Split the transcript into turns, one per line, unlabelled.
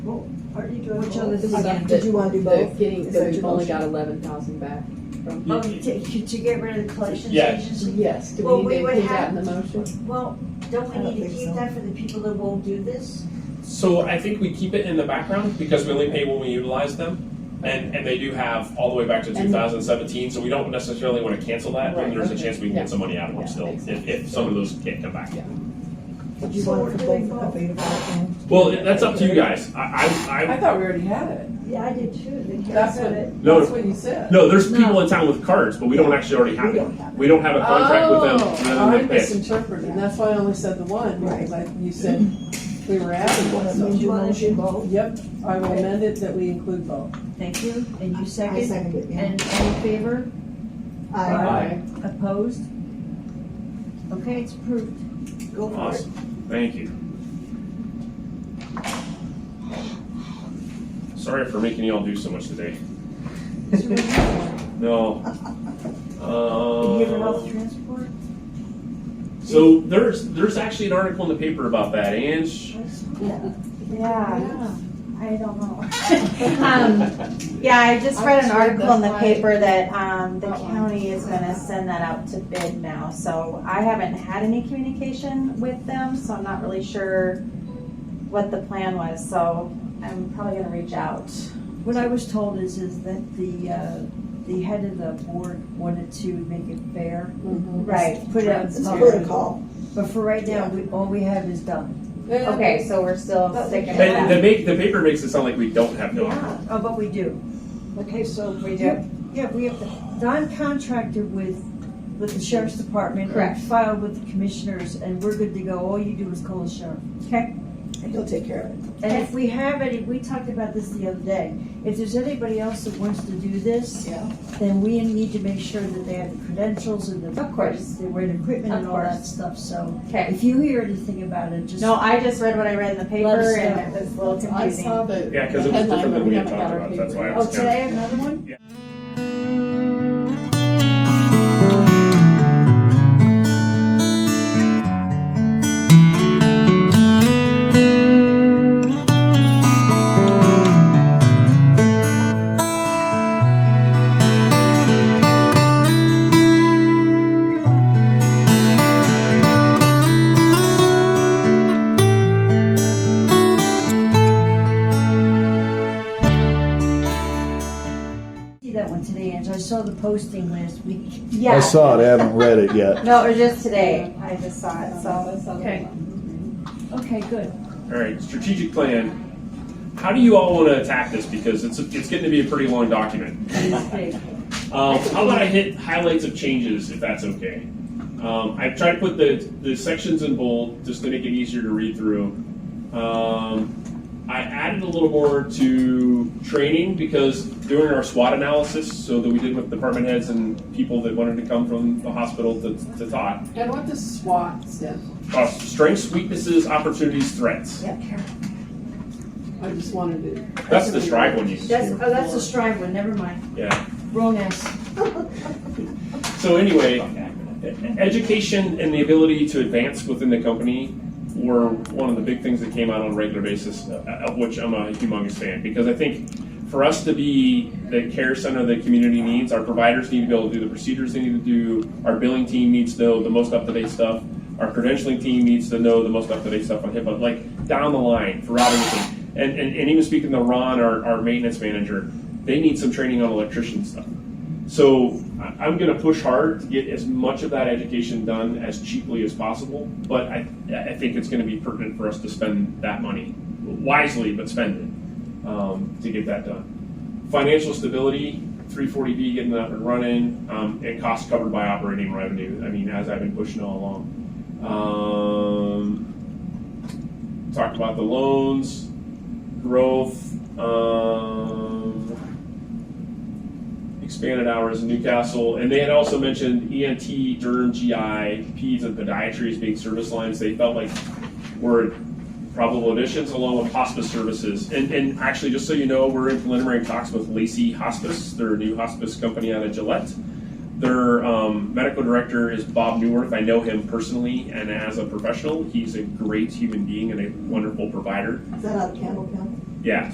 Or do you do it
Which on the
both?
design
Again,
did
the-
you wanna do
the
both?
Getting,
Is
that
that
we've
your
only
motion?
got eleven thousand back from.
Oh, to, to get rid of the collections
Yeah.
agency?
Yes, do
Well,
we
we
need to
would
include that
have-
in the motion?
Well, don't
I don't
we need to
think
keep
so.
that for the people that won't do this?
So I think we keep it in the background because we only pay when we utilize them. And, and they do have all the way back to
And-
two thousand seventeen, so we don't necessarily wanna cancel that, but
Right,
there's a
okay.
chance we can
Yeah.
get some money out of them
Yeah,
still,
makes
if, if some of those can't come back.
Yeah.
Did you
So
want it for
we're
both
doing
available
both.
and?
Well, that's up to you guys, I, I,
I
I,
thought we already had it.
Yeah, I did too, then Karen
That's
said it.
what,
No.
that's what you said.
no, there's people in town with cards, but we don't actually already have
We
it.
don't have
We don't have a contract with them, other
Oh,
than
I
they pay. us.
misinterpreted, that's why I only said the one, because I, you said we were adding one,
Do
so.
you wanna do both?
Yep, I will amend it that we include both.
Thank you, and you
I
second,
second it, yeah.
and all in favor,
I,
Aye.
opposed? Okay, it's approved, go for it.
Awesome, thank you. Sorry for making y'all do so much today.
So we're done.
No.
You give it off
Um,
transport?
So there's there's actually an article in the paper about that, Ange.
Yeah,
I don't know.
um, yeah, I just read
I
an
just read
article in the
that
paper that, um, the
That one.
county is gonna send that out to bid now, so I haven't had any communication with them, so I'm not really sure what the plan was, so I'm probably gonna reach out.
What I was told is, is that the, uh, the head of the board wanted to make it fair.
Right.
Put it out.
it's
there.
protocol.
But for right now, we, all we have is done.
Okay, so we're still sticking
They-
with
the
that.
make the paper makes it sound like we don't have no.
Oh, but we do. Okay, so.
We do.
Yeah, we have, Don contracted with, with the sheriff's department. and
Correct.
Filed with the commissioners, and we're good to go. All you do is call the sheriff.
Okay,
And he'll take care of it.
And if we have any, we talked about this the other day, if there's anybody else that wants to do this,
Yeah.
then we need to make sure that they have the credentials and the.
Of course.
The right equipment and
Of
all that
course.
stuff, so
okay.
if you hear anything about it, just.
No, I just read what I read in the
Let us
paper and
know.
it was a little
I
confusing.
saw the the
Yeah, 'cause it was
headline,
different
but
than we had
haven't got
talked
our
about, that's
paper
why I
yet.
was
Oh, today, another one? See that one today, Ange, I saw the posting last week.
Yeah.
I saw it, I haven't read it yet.
No, it was just today. I just saw it, so.
Okay. Okay, good.
All right, strategic plan. How do you all want to attack this? Because it's it's getting to be a pretty long document.
Okay.
Um, how about I hit highlights of changes, if that's okay? Um, I've tried to put the, the sections in bold just to make it easier to read through. Um, I added a little more to training because during our SWOT analysis, so that we did with department heads and people that wanted to come from the hospital to, to talk,
And what does SWAT stand
uh, strengths, weaknesses, opportunities, threats.
for? I just wanted to.
That's the strike one you can
That's,
do.
oh, that's the Stride one, never mind,
Yeah.
wrong ass.
So anyway, education and the ability to advance within the company were one of the big things that came out on a regular basis, uh, of which I'm a humongous fan, because I think for us to be the care center the community needs, our providers need to be able to do the procedures they need to do, our billing team needs to know the most up-to-date stuff, our credentialing team needs to know the most up-to-date stuff on HIPAA, like down the line throughout everything. And, and, and even speaking to Ron, our, our maintenance manager, they need some training on electrician stuff. So I- I'm going to push hard to get as much of that education done as cheaply as possible, but I, I think it's going to be pertinent for us to spend that money wisely, but spend it um, to get that done. Financial stability, 340B getting up and running, um, and costs covered by operating revenue. I mean, as I've been pushing all along. Um, talked about the loans, growth. Um, expanded hours in Newcastle, and they had also mentioned ENT, Derm, GI, Peds, and Podiatry as being service lines they felt like were probable additions, along with hospice services. And, and actually, just so you know, we're in preliminary talks with Lacey Hospice, their new hospice company out of Gillette. Their um, medical director is Bob Newworth. I know him personally, and as a professional, he's a great human being and a wonderful provider.
Is that out of Campbell County?
Yeah,